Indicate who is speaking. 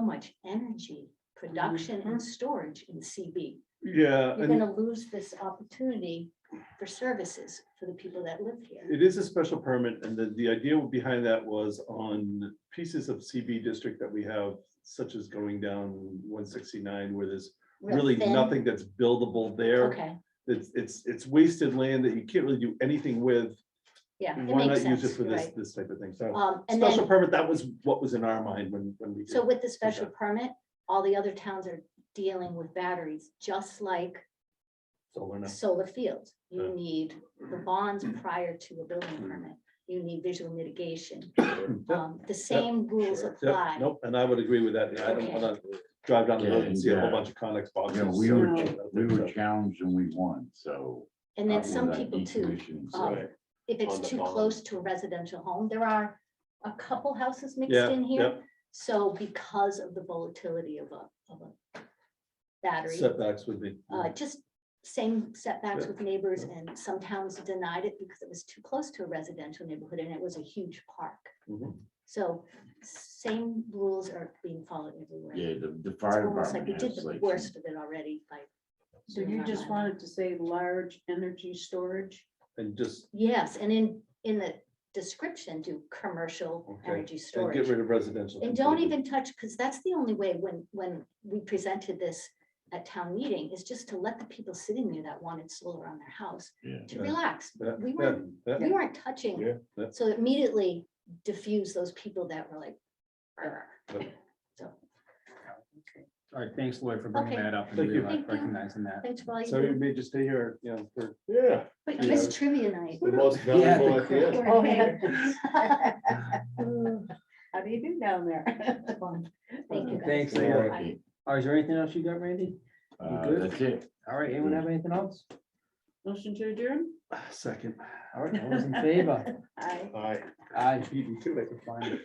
Speaker 1: much energy production and storage in CB.
Speaker 2: Yeah,
Speaker 1: You're
Speaker 2: Mm-hmm. Uh, and
Speaker 1: gonna lose this opportunity for services for the people that live here.
Speaker 2: it is a special permit, and the, the idea behind that was on pieces of CB district that we have, such as going down one sixty-nine, where there's
Speaker 1: Real
Speaker 2: really
Speaker 1: thin.
Speaker 2: nothing that's buildable there.
Speaker 1: Okay,
Speaker 2: It's, it's, it's wasted land that you can't really do anything with.
Speaker 1: yeah, it
Speaker 2: Why
Speaker 1: makes
Speaker 2: not use
Speaker 1: sense,
Speaker 2: it for
Speaker 1: you're
Speaker 2: this,
Speaker 1: right.
Speaker 2: this type of thing? So
Speaker 1: Um, and
Speaker 2: special
Speaker 1: then,
Speaker 2: permit, that was what was in our mind when, when we. did
Speaker 1: so with the special
Speaker 2: Okay.
Speaker 1: permit, all the other towns are dealing with batteries, just like
Speaker 2: solar now.
Speaker 1: solar fields. You
Speaker 2: Yeah.
Speaker 1: need the bonds prior to a building permit. You need visual mitigation.
Speaker 2: Yep,
Speaker 1: Um, the same rules
Speaker 3: sure.
Speaker 2: yep,
Speaker 1: apply.
Speaker 2: Nope, and I would agree with that. I don't
Speaker 1: Okay.
Speaker 2: wanna drive down the road and see a whole
Speaker 3: Yeah.
Speaker 2: bunch of Connex boxes.
Speaker 3: Yeah, we were,
Speaker 2: So-
Speaker 3: we were challenged and we won, so.
Speaker 1: And then
Speaker 3: I
Speaker 1: some
Speaker 3: won that
Speaker 1: people too,
Speaker 3: decommission, so-
Speaker 1: um, if
Speaker 4: On
Speaker 1: it's
Speaker 4: the
Speaker 1: too
Speaker 4: bond.
Speaker 1: close to a residential home, there are a couple houses mixed
Speaker 2: Yeah,
Speaker 1: in here.
Speaker 2: yep.
Speaker 1: So because of the volatility of a, of a battery,
Speaker 2: Setbacks would be.
Speaker 1: uh, just same setbacks
Speaker 2: mm. Yeah.
Speaker 1: with neighbors and some towns denied it because it was too close to a residential neighborhood and it was a huge park.
Speaker 2: Mhm.
Speaker 1: So same rules are being followed everywhere.
Speaker 3: Yeah, the, the
Speaker 1: It's
Speaker 3: fire
Speaker 1: almost like we
Speaker 3: department
Speaker 1: did
Speaker 3: has
Speaker 1: the
Speaker 3: like.
Speaker 1: worst of it already by.
Speaker 5: So you just wanted to say large energy storage?
Speaker 2: And just,
Speaker 1: Yes, and in, in the description, do commercial
Speaker 2: Okay,
Speaker 1: energy
Speaker 2: and get
Speaker 1: storage.
Speaker 2: rid of residential.
Speaker 1: And don't
Speaker 2: completely.
Speaker 1: even touch, because that's the only way when, when we presented this at town meeting, is just to let the people sitting there that wanted solar on their house
Speaker 3: Yeah.
Speaker 1: to
Speaker 2: Yeah.
Speaker 1: relax.
Speaker 2: Yeah,
Speaker 1: We
Speaker 2: yeah,
Speaker 1: weren't,
Speaker 2: yeah.
Speaker 1: we weren't touching.
Speaker 4: Yeah,
Speaker 2: yeah.
Speaker 1: So immediately diffuse those people that were like. "Arr."
Speaker 2: Yeah.
Speaker 1: So,
Speaker 6: All right, thanks Lloyd for bringing
Speaker 1: Okay.
Speaker 6: that up and
Speaker 2: Thank you.
Speaker 6: reali-
Speaker 1: Thank you.
Speaker 6: recognizing that.
Speaker 1: thanks for all you
Speaker 2: So you
Speaker 1: do.
Speaker 2: may just stay here, you know, for
Speaker 4: Yeah.
Speaker 1: But
Speaker 2: you
Speaker 1: it's
Speaker 2: know,
Speaker 1: trivia night.
Speaker 4: The most valuable at the end.
Speaker 1: We're
Speaker 5: Oh,
Speaker 1: here.
Speaker 5: How do you do down there?
Speaker 1: Thank you. guys.
Speaker 6: Thanks,
Speaker 3: So,
Speaker 6: Leah.
Speaker 3: okay,
Speaker 6: All right, is there anything else you got, Randy?
Speaker 3: Uh,
Speaker 6: good?
Speaker 3: that's it.
Speaker 6: All right, anyone have anything else?
Speaker 5: Motion to adjourn?
Speaker 2: second.
Speaker 6: All right, all those in favor?
Speaker 5: Aye.
Speaker 4: All right.
Speaker 6: Aye.
Speaker 2: Beat me to it.
Speaker 6: fine.